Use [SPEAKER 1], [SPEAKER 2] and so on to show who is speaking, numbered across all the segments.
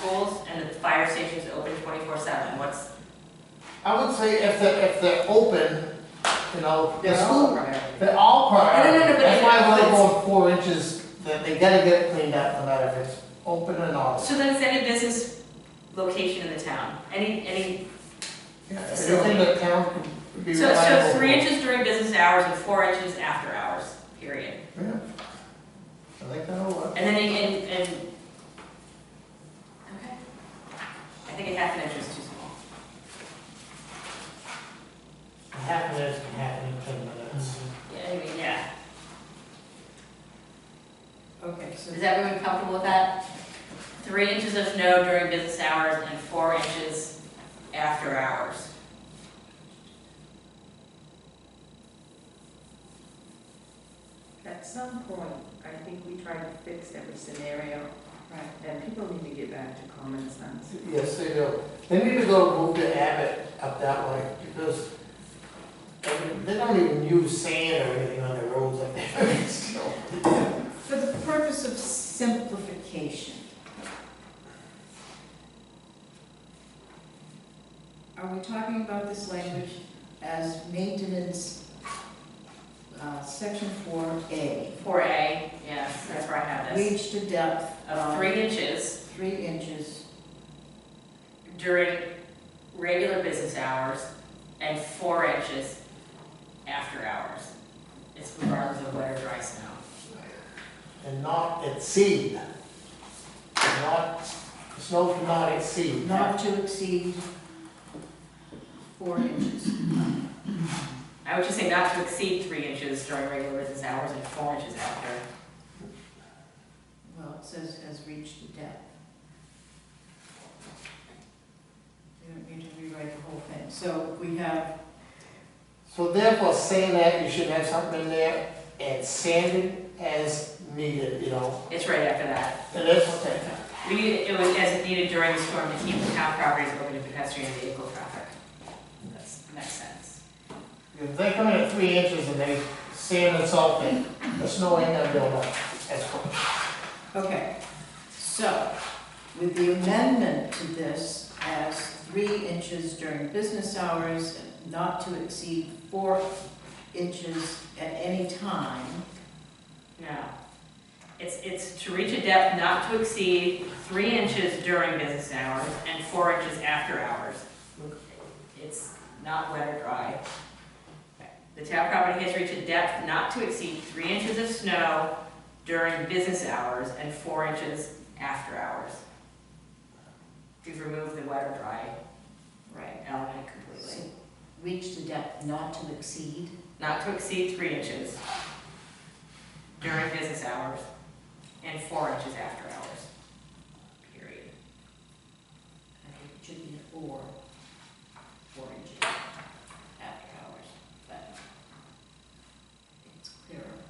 [SPEAKER 1] schools and the fire station's open twenty-four seven, what's,
[SPEAKER 2] I would say if they're, if they're open, you know, the school,
[SPEAKER 3] priority.
[SPEAKER 2] they're all priority.
[SPEAKER 1] No, no, no, no, but
[SPEAKER 2] That's
[SPEAKER 1] if-
[SPEAKER 2] why I
[SPEAKER 1] but
[SPEAKER 2] wanna
[SPEAKER 1] it's-
[SPEAKER 2] go with four inches, that they gotta get it cleaned up, no matter if it's open or not.
[SPEAKER 1] so then it's any business location in the town, any, any,
[SPEAKER 2] Yeah, Everything the town could be
[SPEAKER 1] so,
[SPEAKER 2] reliable.
[SPEAKER 1] so three
[SPEAKER 2] for.
[SPEAKER 1] inches during business hours and four inches after hours, period.
[SPEAKER 2] Yeah. I think that'll work.
[SPEAKER 1] And then, you- and, and, okay. I think a half an inch is too small.
[SPEAKER 4] Half of this can happen in ten minutes.
[SPEAKER 1] Yeah, I mean, yeah.
[SPEAKER 3] Okay, so,
[SPEAKER 1] Is everyone comfortable with that? Three inches of snow during business hours and four inches after hours.
[SPEAKER 3] at some point, I think we tried to fix every scenario. Right. And people need to get back to common sense.
[SPEAKER 2] Yes, they do. They need to go move to Abbott up that way because I mean, they don't even use sand or anything on their roads like that. So,
[SPEAKER 5] For the purpose of simplification, are we talking about this language as maintenance, uh, section four A?
[SPEAKER 1] Four A, yes, that's where I have this,
[SPEAKER 5] Reach to depth
[SPEAKER 1] of
[SPEAKER 5] of
[SPEAKER 1] three inches
[SPEAKER 5] three inches,
[SPEAKER 1] during regular business hours and four inches after hours. It's regardless of wet or dry snow.
[SPEAKER 2] And not exceed. Not, snow cannot exceed.
[SPEAKER 5] not to exceed four inches.
[SPEAKER 1] I would just say not to exceed three inches during regular business hours and four inches after.
[SPEAKER 5] Well, it says has reached the depth. You don't need to rewrite the whole thing. So we have,
[SPEAKER 2] So therefore, saying that, you should have something in there and sanded as needed, you know?
[SPEAKER 1] It's right after that.
[SPEAKER 2] And that's what they,
[SPEAKER 1] We need, it was as needed during the storm to keep the town properties open to pedestrian and vehicle traffic. That's, makes sense.
[SPEAKER 2] if they come in at three inches and they sand and salt it, the snow ain't gonna build up. That's what.
[SPEAKER 5] okay, so with the amendment to this as three inches during business hours, not to exceed four inches at any time.
[SPEAKER 1] No. It's, it's to reach a depth not to exceed three inches during business hours and four inches after hours. It's not wet or dry. The town property has reached a depth not to exceed three inches of snow during business hours and four inches after hours. We've removed the wet or dry
[SPEAKER 5] Right.
[SPEAKER 1] element completely.
[SPEAKER 5] Reach the depth not to exceed.
[SPEAKER 1] Not to exceed three inches during business hours and four inches after hours. Period.
[SPEAKER 5] I think it should be four, four inches after hours, but it's clearer.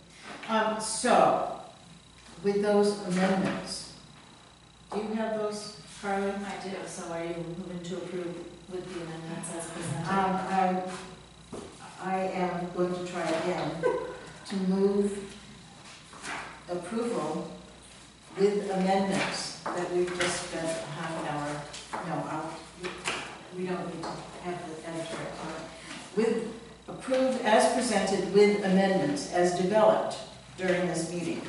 [SPEAKER 5] Um, so, with those amendments, do you have those, Carly? Um,
[SPEAKER 6] I do, so are you moving to approve with the amendments as presented?
[SPEAKER 5] Um, I, I am going to try again to move approval with amendments that we've just spent a half an hour, no, I'll- we don't need to have the editor on it. With, approved as presented with amendments as developed during this meeting.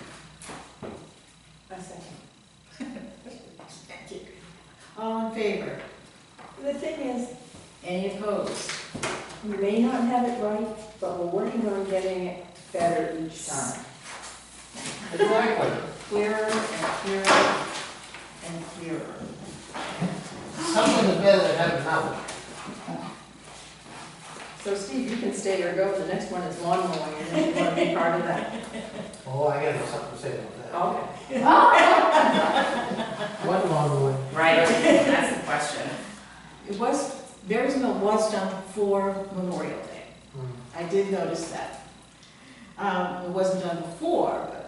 [SPEAKER 6] A second.
[SPEAKER 5] Thank you. All in favor?
[SPEAKER 6] The thing is,
[SPEAKER 5] Any opposed?
[SPEAKER 6] we may not have it right, but we're working on getting it better each time.
[SPEAKER 2] Exactly.
[SPEAKER 5] Clearer and clearer and clearer.
[SPEAKER 2] Something is better than having nothing.
[SPEAKER 3] so Steve, you can stay or go, the next one is lawn mowing, and you want to be part of that.
[SPEAKER 2] Oh, I gotta have something to say about
[SPEAKER 3] Okay.
[SPEAKER 2] that. What long one?
[SPEAKER 1] Right, that's the question.
[SPEAKER 5] It was, Berry's Mill was done for Memorial Day. I did notice that. Um, it wasn't done before, but.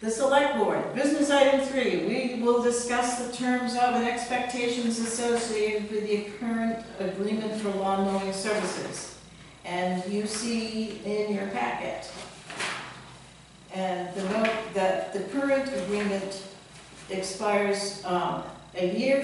[SPEAKER 5] The select board, business item three, we will discuss the terms of and expectations associated with the current agreement for lawn mowing services. And you see in your packet. And the note that the current agreement expires, um, a year